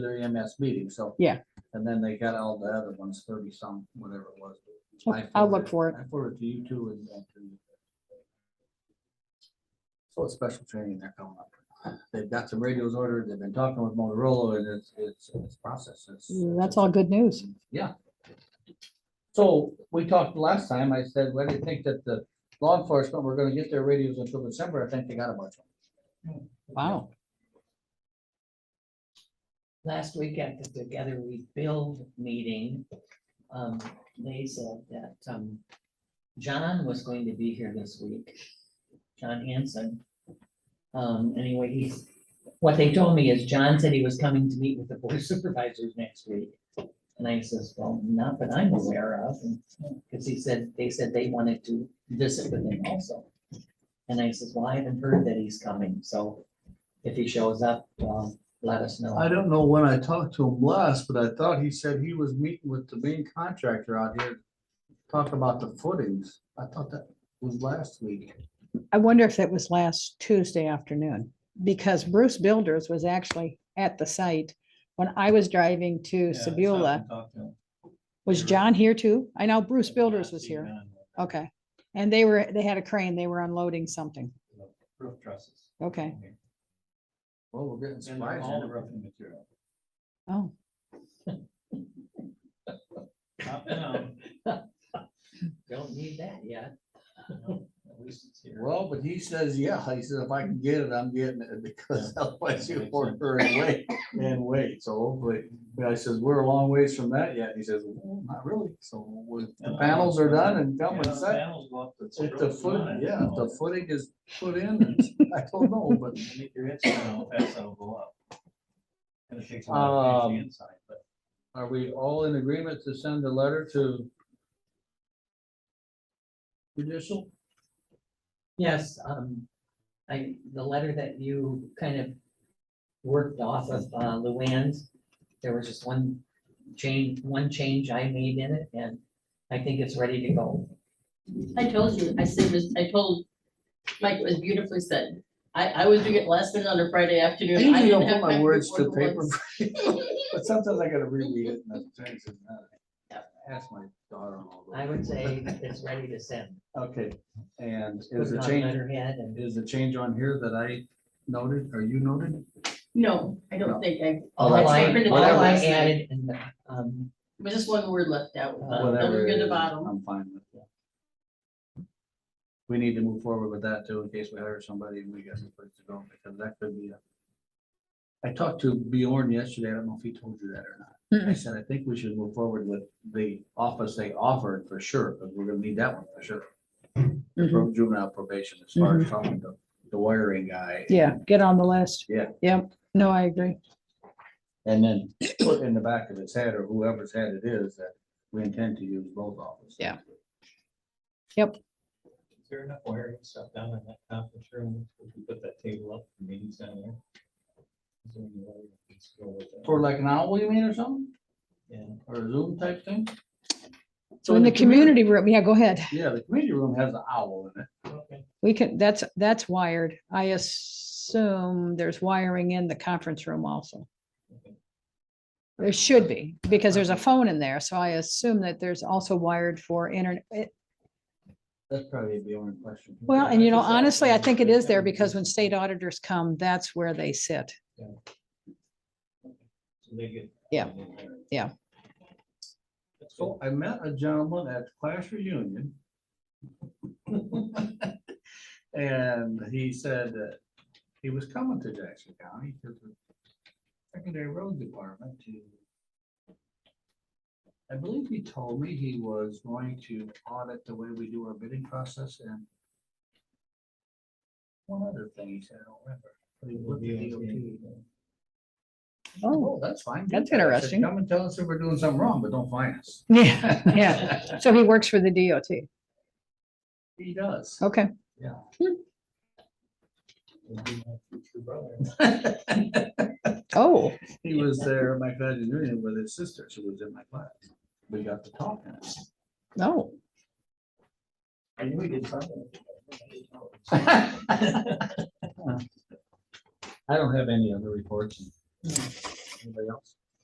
their EMS meeting, so. Yeah. And then they got all the other ones, thirty some, whatever it was. Oh, I I'll look forwarded- for it. I forwarded to you too. and then to- So it's special training they're coming up. They've got some radios ordered, they've been talking with Motorola and it's, it's, it's process. it's- Mm, That's all good news. So we talked last time, I said, well, do you think that the law enforcement, we're gonna get their radios until December, I think they got a bunch. of Wow. last week at the Together We Build meeting, um, they said that, um, John was going to be here this week, John Hanson. Um, anyway, he's, what they told me is John said he was coming to meet with the board of supervisors next week. And I says, well, not that I'm aware of, because he said, they said they wanted to visit with him also. And I says, well, I haven't heard that he's coming, so if he shows up, um, let us know. I don't know when I talked to him last, but I thought he said he was meeting with the main contractor out here. Talk about the footings. I thought that was last week. I wonder if it was last Tuesday afternoon, because Bruce Builders was actually at the site when I was driving to Sebula. Was You're right. John here too? I know Bruce Builders was here. Okay. And they were, they had a crane, they were unloading something. Roof trusses. Okay. Well, we're getting And they're surprised. all roofing material. Oh, Not now, Don't need that yet. At least it's here. Well, but he says, yeah, he says, if I can get it, I'm getting it because otherwise you order and wait and wait. So hopefully, but I says, we're a long ways from that yet. He says, well, not really. So with- the panels are done and Yeah, come and the set. panels go up, it's If the roofed foot, line, yeah, so if the footing is put in, it's- I don't know, but. I think your inside will pass, that'll go up. And it takes a lot of Um, the inside, but Are we all in agreement to send a letter to judicial? Yes, um, I, the letter that you kind of worked off of, uh, Luann's, there was just one change, one change I made in it, and I think it's ready to go. I told you, I said, this- I told Mike, it was beautifully said. I, I was doing it last minute on a Friday afternoon. I usually didn't don't have put my time words to work paper, once. but sometimes I gotta reread it. and that turns it out. Ask my daughter. and all those I would people. say it's ready to send. Okay, and Put is it the on change, letterhead and- is the change on here that I noted, or you noted? No, I don't think I. Oh, All I I, printed it all out I last night. added in the, um, It was just one word left out. uh, that Whatever was it in the is, bottom. I'm fine with that. We need to move forward with that too, in case we hire somebody and we got some place to go, because that could be a. I talked to Bjorn yesterday, I don't know if he told you that or not. I said, I think we should move forward with the office they offered for sure, because we're gonna need that one for sure. The mhm. pro- Juvenile probation, as far as talking to the wiring guy. yeah, get on the list. Yeah. Yep. No, I agree. And then put in the back of his head or whoever's head it is that we intend to use both offices. Yeah. is there enough wiring stuff down in that conference room? We can put that table up for meetings down there. Is there any way we can scroll with that? For like an owl, you mean, or something? Yeah. or a Zoom type thing. So in the community room, yeah, go ahead. Yeah, the community room has an owl in it. Okay. We can, that's, that's wired. I assume there's wiring in the conference room also. okay. There should be, because there's a phone in there, so I assume that there's also wired for internet. It- That's probably a Bjorn question. Well, and you know, honestly, I think it is there because when state auditors come, that's where they sit. So they get. Yeah, yeah. That's cool. So I met a gentleman at the class reunion. And he said that he was coming to Jackson County to the secondary road department to. I believe he told me he was going to audit the way we do our bidding process and one other thing he said, I don't remember. but he looked at DOT. Oh, Oh, that's fine. That's Do that. I said, interesting. Come and tell us if we're doing something wrong, but don't fine us. yeah, yeah. So he works for the DOT. He does. Okay, Would be my future brother. oh, He was there at my class reunion with his sister. She was in my class. We got to talking. no, I knew we did something. I don't have any other reports. Anybody else?